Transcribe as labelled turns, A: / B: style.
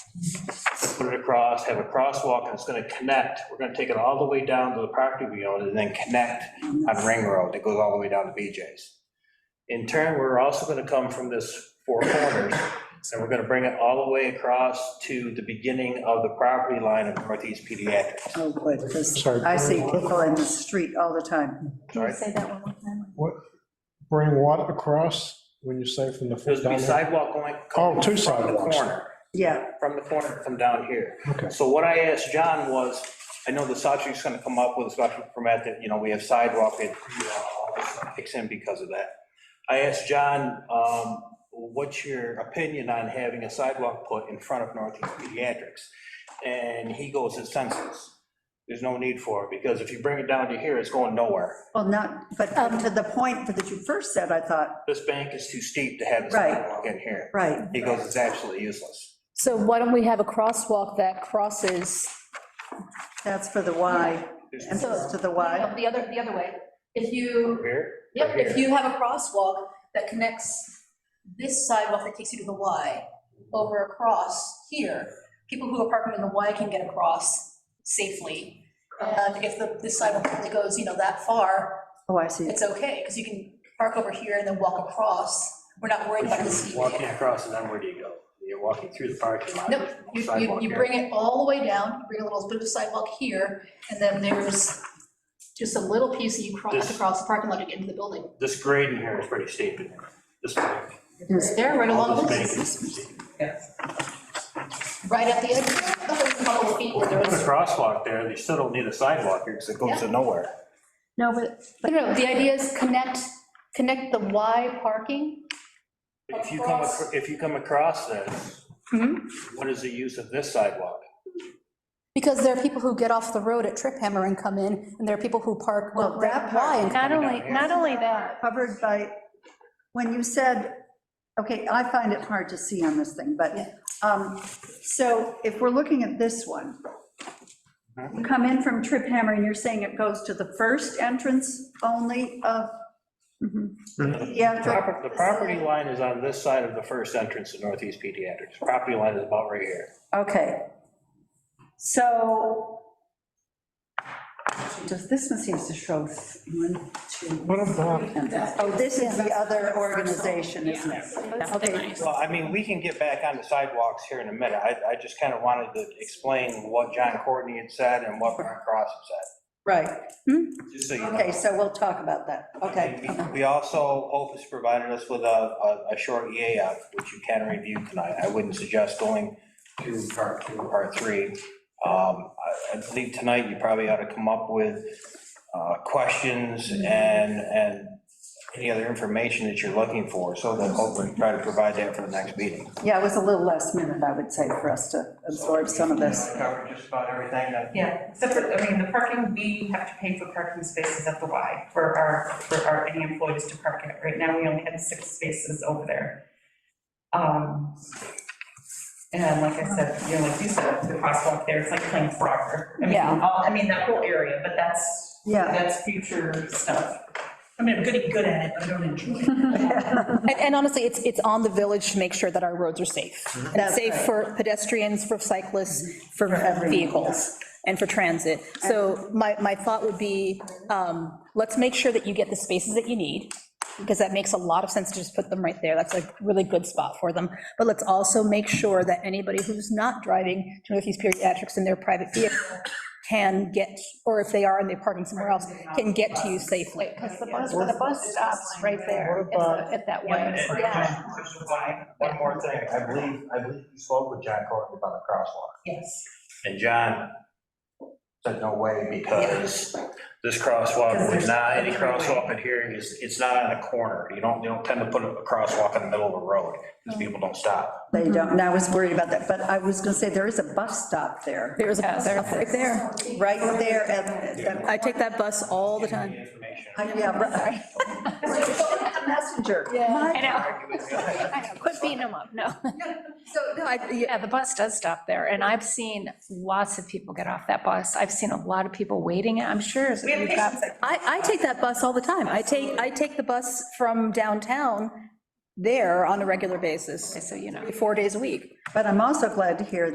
A: put it across, have a crosswalk, and it's gonna connect, we're gonna take it all the way down to the property we own, and then connect on Ring Road that goes all the way down to BJ's. In turn, we're also gonna come from this four corners, and we're gonna bring it all the way across to the beginning of the property line of Northeast Pediatrics.
B: Oh, good, because
C: Sorry.
B: I see people in the street all the time.
D: Can
A: Sorry.
D: you say that one more time?
C: Bring what across when you say from the
A: There's gonna
C: foot down?
A: be
C: there?
A: sidewalk going.
C: Oh,
A: from
C: two
A: the
C: sidewalks.
A: corner.
B: Yeah,
A: From the corner, come down here.
C: Okay.
A: So what I asked John was, I know the Sachi's gonna come up with a special permit that, you know, we have sidewalk, it you know, all this stuff kicks in because of that. I asked John, um, what's your opinion on having a sidewalk put in front of Northeast Pediatrics? And he goes, it's senseless. There's no need for it, because if you bring it down to here, it's going nowhere.
B: well, not, but up to the point that you first said, I thought,
A: This bank is too steep to have a
B: Right.
A: sidewalk in here.
B: right,
A: He goes, it's absolutely useless.
D: So why don't we have a crosswalk that crosses?
B: that's for the Y,
A: There's
B: emphasis to the
D: No,
B: Y.
D: The other, the other way. If you,
A: Here?
D: yep,
A: Right
D: if
A: here.
D: you have a crosswalk that connects this sidewalk that takes you to the Y over across here, people who are parking in the Y can get across safely. And if the, this sidewalk only goes, you know, that far,
B: Oh, I see.
D: it's okay, because you can park over here and then walk across. We're not worried about the
A: If
D: steep.
A: you're Walking across, and then where do you go? You're walking through the parking lot.
D: No, you, you,
A: sidewalk
D: you
A: there.
D: bring it all the way down, you bring a little bit of sidewalk here, and then there's just a little piece that you cross
A: This-
D: across the parking lot to get into the building.
A: This grade in here is pretty steep in there. This bank.
D: It's there, right
A: all
D: along
A: this
D: the,
A: bank is
D: edge.
A: steep.
D: right at the edge, the whole couple of feet where
A: Put
D: there
A: a
D: was.
A: crosswalk there, they still don't need a sidewalk here because it goes to nowhere.
B: No, but,
D: No, no, the idea is connect, connect the Y parking.
A: But If you come,
D: Across.
A: acro- if you come across this,
D: Mhm.
A: what is the use of this sidewalk?
D: Because there are people who get off the road at Trip Hammer and come in, and there are people who park
B: Well,
D: over
B: that
D: at Y and
E: Not only, not only that,
B: covered by, when you said, okay, I find it hard to see on this thing, but, um, so if we're looking at this one, you come in from Trip Hammer and you're saying it goes to the first entrance only of, mhm,
A: The
B: yeah,
A: proper- the property line is on this side of the first entrance to Northeast Pediatrics. Property line is about right here.
B: okay. So, does, this one seems to show one, two,
C: What about,
B: and that, oh, this is the other organization, isn't it? Okay,
A: Well, I mean, we can get back on the sidewalks here in a minute. I, I just kind of wanted to explain what John Courtney had said and what Brian Cross had
B: right, Hmm?
A: said, just so you know.
B: okay, so we'll talk about that, okay.
A: We- We also, Opus provided us with a, a, a short EAF, which you can review tonight. I wouldn't suggest going to part two, or part three. Um, I, I believe tonight you probably ought to come up with, uh, questions and, and any other information that you're looking for, so that hopefully try to provide that for the next meeting.
B: Yeah, it was a little last minute, I would say, for us to absorb some of this.
A: Covered just about everything that
E: yeah, except for, I mean, the parking, we have to pay for parking spaces at the Y for our, for our, any employees to park at. Right now, we only had six spaces over there. Um, and like I said, you know, like you said, the crosswalk there, it's like playing soccer. I mean,
B: Yeah.
E: all- I mean, that whole area, but that's,
B: Yeah.
E: that's future stuff. I mean, I'm good, good at it, but I don't enjoy it.
F: And, and honestly, it's, it's on the village to make sure that our roads are safe. And
B: Mm-hmm. That's
F: Safe
B: right. Mm-hmm.
F: for pedestrians, for cyclists, for vehicles, and for transit. So my, my thought would be, um, let's make sure that you get the spaces that you need, because that makes a lot of sense to just put them right there. That's a really good spot for them. But let's also make sure that anybody who's not driving to Northeast Pediatrics in their private vehicle can get, or if they are and they're parking somewhere else, can get to you safely.
G: Because the bus, the bus stops right there,
C: What about-
G: It's at that
E: Yeah,
G: one.
E: but it's like,
G: Yeah.
E: it's the Y.
A: One more thing, I believe, I believe you spoke with John Courtney about the crosswalk.
E: Yes.
A: And John said, no way, because this crosswalk was not, any crosswalk in here is, it's not on a corner. You don't, you don't tend to put a crosswalk in the middle of a road, because people don't stop.
B: They don't, and I was worried about that, but I was gonna say, there is a bus stop there,
F: There's a bus stop right there.
B: right there at, the-
F: I take that bus all the time.
A: Information.
B: I- yeah, right. The Messenger.
G: I
B: My-
G: know, I know, quit beating them up, no.
F: So, no, I, yeah,
G: Yeah, the bus does stop there, and I've seen lots of people get off that bus, I've seen a lot of people waiting, I'm sure.
E: We have
G: we've
E: patients
G: got-
E: that
F: I, I take that bus all the time. I take, I take the bus from downtown there on a regular basis,
G: So, you know.
F: four days a week.
B: But I'm also glad to hear